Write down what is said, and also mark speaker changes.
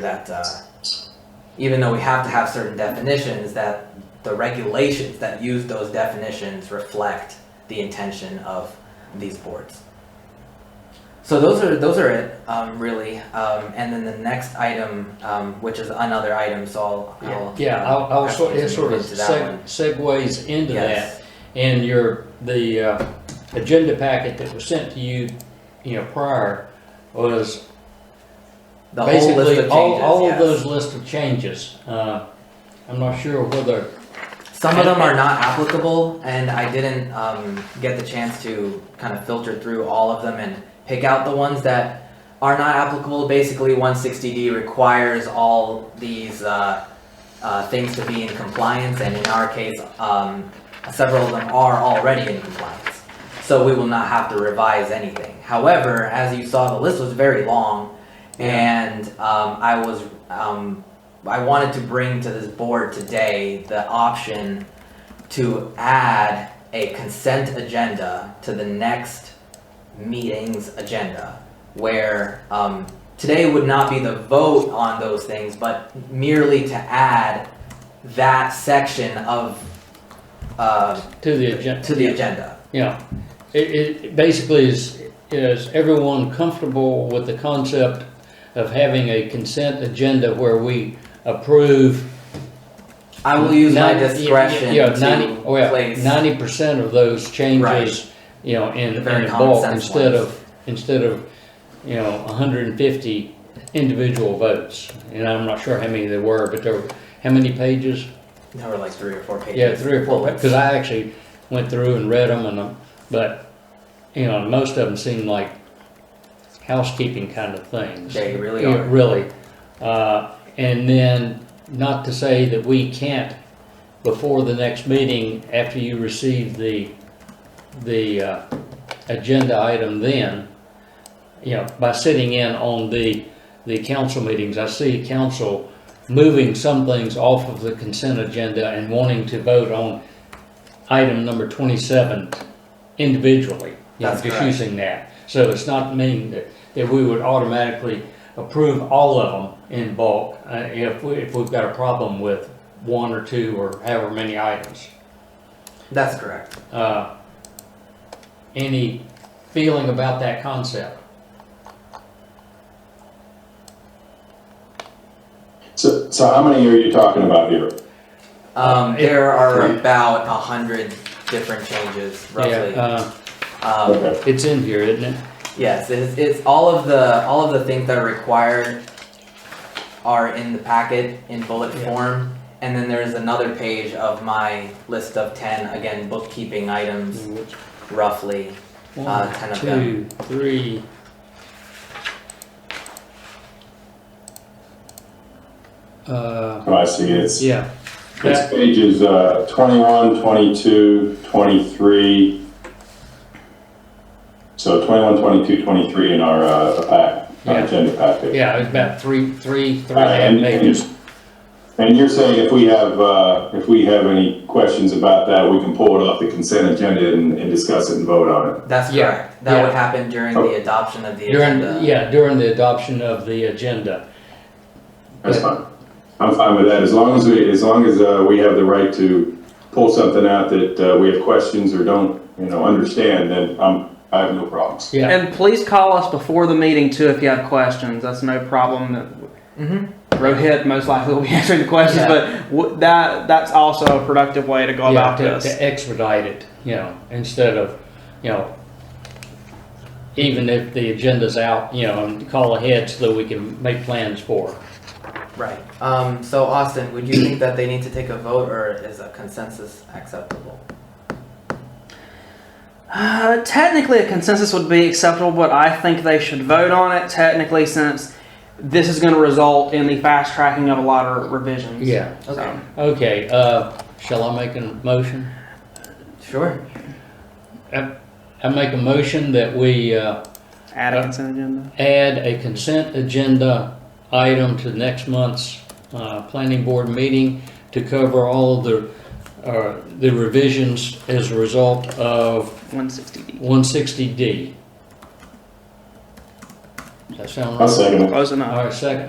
Speaker 1: that uh, even though we have to have certain definitions, that the regulations that use those definitions reflect the intention of these boards. So those are those are it um, really, um, and then the next item, um, which is another item. So I'll, I'll
Speaker 2: Yeah,
Speaker 1: um,
Speaker 2: I'll, I'll
Speaker 1: have
Speaker 2: sort,
Speaker 1: to
Speaker 2: it sort of
Speaker 1: move to that
Speaker 2: seg-
Speaker 1: one.
Speaker 2: segues into
Speaker 1: Yes.
Speaker 2: that. And your, the, uh, agenda packet that was sent to you, you know, prior was
Speaker 1: the whole list
Speaker 2: basically
Speaker 1: of changes.
Speaker 2: all, all of
Speaker 1: yes.
Speaker 2: those list of changes. Uh, I'm not sure whether,
Speaker 1: Some of them are not applicable, and I didn't um, get the chance to kind of filter through all of them and pick out the ones that are not applicable. Basically, 160D requires all these uh, uh, things to be in compliance, and in our case, um, several of them are already in compliance. So we will not have to revise anything. However, as you saw, the list was very long, and um, I was um, I wanted to bring to this board today the option to add a consent agenda to the next meeting's agenda, where, um, today would not be the vote on those things, but merely to add that section of, uh,
Speaker 2: to the agenda.
Speaker 1: to the agenda.
Speaker 2: Yeah, it, it- it basically is, is everyone comfortable with the concept of having a consent agenda where we approve
Speaker 1: I will use my
Speaker 2: 90 yeah,
Speaker 1: discretion
Speaker 2: yeah, 90
Speaker 1: to
Speaker 2: oh, yeah,
Speaker 1: place,
Speaker 2: 90% of those
Speaker 1: Right.
Speaker 2: changes, you know, in,
Speaker 1: The
Speaker 2: in
Speaker 1: very
Speaker 2: the
Speaker 1: common
Speaker 2: bulk
Speaker 1: sense
Speaker 2: instead
Speaker 1: ones.
Speaker 2: of, instead of, you know, 150 individual votes. And I'm not sure how many there were, but there were, how many pages?
Speaker 1: there were like three or four pages.
Speaker 2: Yeah, three or four,
Speaker 1: Bullets.
Speaker 2: because I actually went through and read them and, um, but, you know, most of them seem like housekeeping kind of things.
Speaker 1: They really
Speaker 2: Yeah,
Speaker 1: are.
Speaker 2: Really. Uh, and then, not to say that we can't, before the next meeting, after you receive the, the, uh, agenda item then, you know, by sitting in on the, the council meetings, I see council moving some things off of the consent agenda and wanting to vote on item number twenty-seven individually. you know,
Speaker 1: That's
Speaker 2: Just
Speaker 1: correct.
Speaker 2: using that. So it's not meaning that, that we would automatically approve all of them in bulk, uh, if, we- if we've got a problem with one or two or however many items.
Speaker 1: That's correct.
Speaker 2: Uh, Any feeling about that concept?
Speaker 3: So, so how many are you talking about here?
Speaker 1: Um,
Speaker 2: Uh, it-
Speaker 1: there are
Speaker 3: Right.
Speaker 1: about a hundred different changes, roughly.
Speaker 2: Yeah, uh,
Speaker 1: Um,
Speaker 3: Okay,
Speaker 2: it's in here, isn't it?
Speaker 1: yes, it's, it's all of the, all of the things that are required are in the packet in bullet
Speaker 2: Yeah.
Speaker 1: form. And then there's another page of my list of ten, again, bookkeeping items, roughly.
Speaker 2: One,
Speaker 1: ten Uh, of
Speaker 2: two, three. Uh,
Speaker 3: oh, I see, it's,
Speaker 2: yeah,
Speaker 3: it's pages, uh, twenty-one, twenty-two, twenty-three. So twenty-one, twenty-two, twenty-three in our, uh, pack, our
Speaker 2: Yeah.
Speaker 3: agenda packet.
Speaker 2: yeah, it's about three, three, three
Speaker 3: Uh, and-
Speaker 2: and a half
Speaker 3: and
Speaker 2: pages.
Speaker 3: you're- And you're saying if we have, uh, if we have any questions about that, we can pull it off the consent agenda and, and discuss it and vote on it?
Speaker 1: That's
Speaker 2: Yeah,
Speaker 1: correct. That would
Speaker 2: yeah. Oh.
Speaker 1: happen during the adoption of the
Speaker 2: During,
Speaker 1: agenda.
Speaker 2: yeah, during the adoption of the agenda.
Speaker 3: That's fine. I'm fine with that, as long as we, as long as, uh, we have the right to pull something out that, uh, we have questions or don't, you know, understand, then I'm, I have no problems.
Speaker 2: Yeah,
Speaker 4: And please call us before the meeting too if you have questions. That's no problem.
Speaker 1: Mhm.
Speaker 4: Rohit most likely will be answering the questions,
Speaker 1: Yeah.
Speaker 4: but w- that that's also a productive way to go
Speaker 2: yeah,
Speaker 4: about
Speaker 2: to,
Speaker 4: this.
Speaker 2: to expedite it, you know, instead of, you know, even if the agenda's out, you know, and call ahead so that we can make plans for. it.
Speaker 1: Right. Um, so Austin, would you think that they need to take a vote or is a consensus acceptable?
Speaker 4: Uh, technically, a consensus would be acceptable, but I think they should vote on it technically since this is going to result in the fast tracking of a lot of revisions.
Speaker 2: Yeah,
Speaker 4: So,
Speaker 1: Okay,
Speaker 2: okay, uh, shall I make a motion?
Speaker 1: sure.
Speaker 2: I make a motion that we uh,
Speaker 4: add a
Speaker 2: Uh,
Speaker 4: consent agenda.
Speaker 2: add a consent agenda item to next month's uh, planning board meeting to cover all of the, uh, the revisions as a result of
Speaker 4: 160D.
Speaker 2: 160D. Does that sound
Speaker 3: I'll
Speaker 2: right?
Speaker 3: second it.
Speaker 4: Close enough.
Speaker 2: All right, second.